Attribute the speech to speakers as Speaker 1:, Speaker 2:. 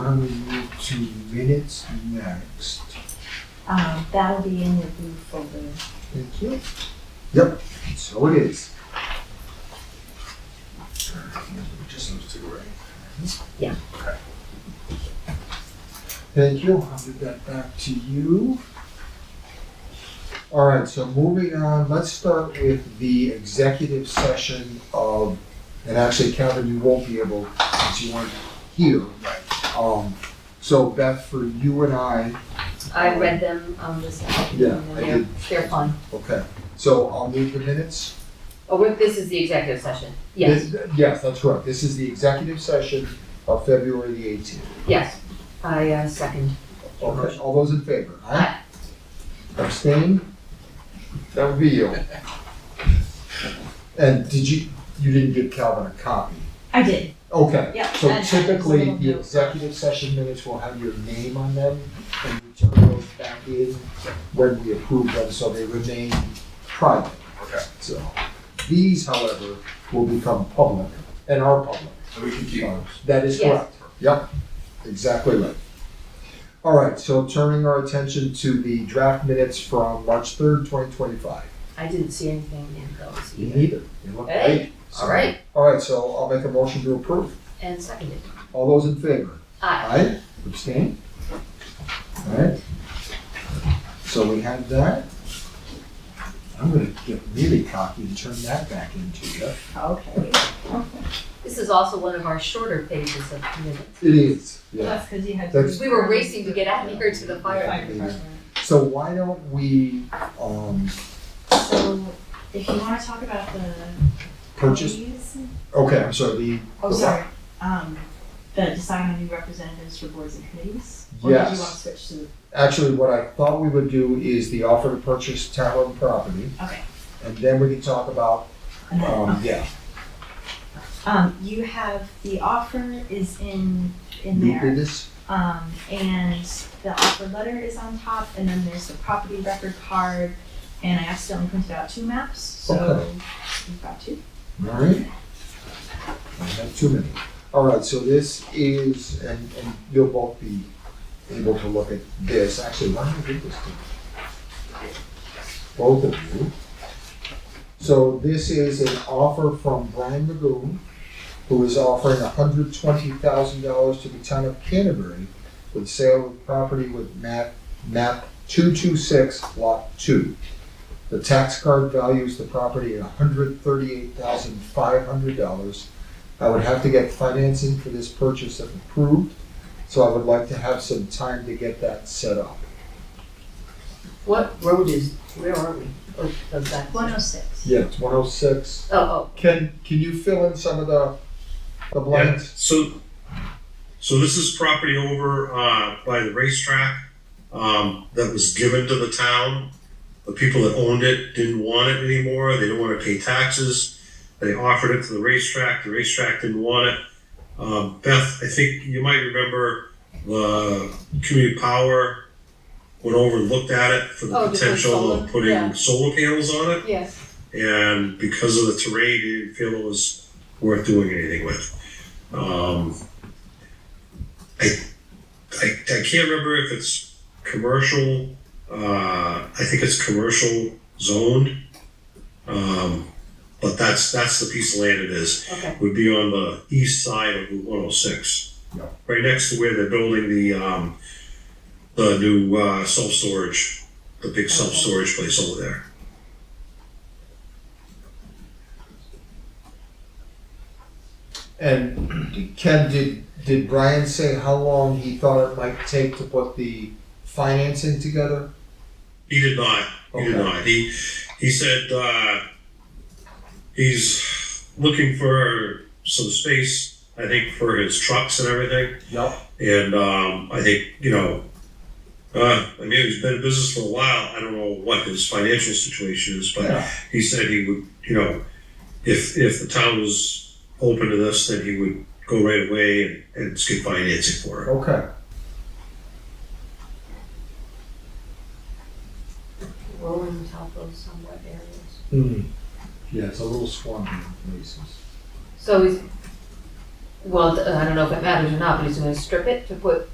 Speaker 1: are we move to minutes next?
Speaker 2: Um, that'll be in your blue folder.
Speaker 1: Thank you. Yep, so it is.
Speaker 3: Just needs to go right.
Speaker 1: Thank you. I'll give that back to you. All right, so moving on, let's start with the executive session of, and actually Kevin, you won't be able, since you weren't here. Right. Um, so Beth, for you and I,
Speaker 2: I read them, um, this
Speaker 1: Yeah,
Speaker 2: afternoon, and
Speaker 1: I
Speaker 2: they're,
Speaker 1: did.
Speaker 2: they're fine.
Speaker 1: okay, so I'll move the minutes.
Speaker 2: Oh, wait, this is the executive session. Yes,
Speaker 1: This- Yes, that's correct. This is the executive session of February the eighteenth.
Speaker 2: yes. I, uh, second.
Speaker 1: All right, all those in favor?
Speaker 2: Aye.
Speaker 1: Abstain? That would be you. And did you, you didn't give Calvin a copy?
Speaker 2: I did.
Speaker 1: Okay.
Speaker 2: Yeah,
Speaker 1: So
Speaker 2: and-
Speaker 1: typically, the executive session minutes will have your name on them, and you turn those back in when we approve them, so they remain private.
Speaker 3: Okay.
Speaker 1: So, these, however, will become public, and are public.
Speaker 3: So we can keep on.
Speaker 1: That is
Speaker 2: Yes.
Speaker 1: correct. Yep, exactly right. All right, so turning our attention to the draft minutes from March third, twenty twenty-five.
Speaker 2: I didn't see anything in those either.
Speaker 1: Neither. They look
Speaker 2: Hey,
Speaker 1: great. So-
Speaker 2: All right,
Speaker 1: All right, so I'll make a motion to approve.
Speaker 2: and seconded.
Speaker 1: All those in favor?
Speaker 2: Aye.
Speaker 1: Aye, abstain? All right. So we have that. I'm gonna get really cocky and turn that back into you.
Speaker 4: Okay.
Speaker 2: This is also one of our shorter pages of minutes.
Speaker 1: It is, yeah.
Speaker 4: That's because you had.
Speaker 1: That's-
Speaker 2: We were racing to get out of here to the fire.
Speaker 4: Fire department.
Speaker 1: So why don't we, um,
Speaker 4: So if you want to talk about the.
Speaker 1: purchase,
Speaker 4: fees-
Speaker 1: okay, I'm sorry, the
Speaker 4: Oh,
Speaker 1: The what?
Speaker 4: sorry. Um, the decide on new representatives for boards and committees? Or did
Speaker 1: Yes.
Speaker 4: you want to switch to, the-
Speaker 1: Actually, what I thought we would do is the offer to purchase town and property,
Speaker 4: okay.
Speaker 1: and then we can talk about,
Speaker 4: and then-
Speaker 1: um, yeah.
Speaker 4: Um, you have, the offer is in, in
Speaker 1: You
Speaker 4: there.
Speaker 1: did this?
Speaker 4: Um, and the offer letter is on top, and then there's the property record card, and I accidentally printed out two maps, so
Speaker 1: Okay.
Speaker 4: you've got two.
Speaker 1: All right. I have too many. All right, so this is, and, and you'll both be able to look at this. Actually, why don't I give this to you? Both of you. So this is an offer from Brian Magoon, who is offering hundred twenty thousand dollars to the town of Canterbury with sale of property with map, map two-two-six, lot two. The tax card values the property at hundred thirty-eight thousand five hundred dollars. I would have to get financing for this purchase if approved, so I would like to have some time to get that set up.
Speaker 2: What road is, where are we? Oh, of that.
Speaker 4: One oh six.
Speaker 1: Yeah, it's one oh six.
Speaker 2: Oh, oh,
Speaker 1: Can, can you fill in some of the, the
Speaker 5: Yeah,
Speaker 1: blanks?
Speaker 5: so, so this is property over, uh, by the racetrack, um, that was given to the town. The people that owned it didn't want it anymore, they didn't wanna pay taxes, they offered it to the racetrack, the racetrack didn't want it. Um, Beth, I think you might remember, the community power went over and looked at it for
Speaker 2: Oh,
Speaker 5: the
Speaker 2: to put
Speaker 5: potential
Speaker 2: solar,
Speaker 5: of
Speaker 2: yeah.
Speaker 5: putting solar panels on it.
Speaker 2: oh, yes.
Speaker 5: And because of the terrain, they didn't feel it was worth doing anything with. Um, I, I, I can't remember if it's commercial, uh, I think it's commercial zoned. Um, but that's, that's the piece of land it is,
Speaker 2: Okay,
Speaker 5: would be on the east side of Route one oh six.
Speaker 1: Yeah.
Speaker 5: Right next to where they're building the, um, the new, uh, self-storage, the big self-storage place over there.
Speaker 1: And Ken, did, did Brian say how long he thought it might take to put the financing together?
Speaker 5: He did not. He did
Speaker 1: Okay.
Speaker 5: not. He he said uh, he's looking for some space. I think for his trucks and everything.
Speaker 1: Yep.
Speaker 5: And um, I think you know, uh, I mean, he's been in business for a while. I don't know what his financial situation is, but
Speaker 1: Yeah.
Speaker 5: he said he would. You know, if if the town was open to this, then he would go right away and, and skip financing for it.
Speaker 1: Okay,
Speaker 2: rolling top of somewhat areas.
Speaker 1: Mm-hmm. hmm, yeah, it's a little swampy in places.
Speaker 2: So is, well, I don't know if it matters or not, but he's gonna strip it to put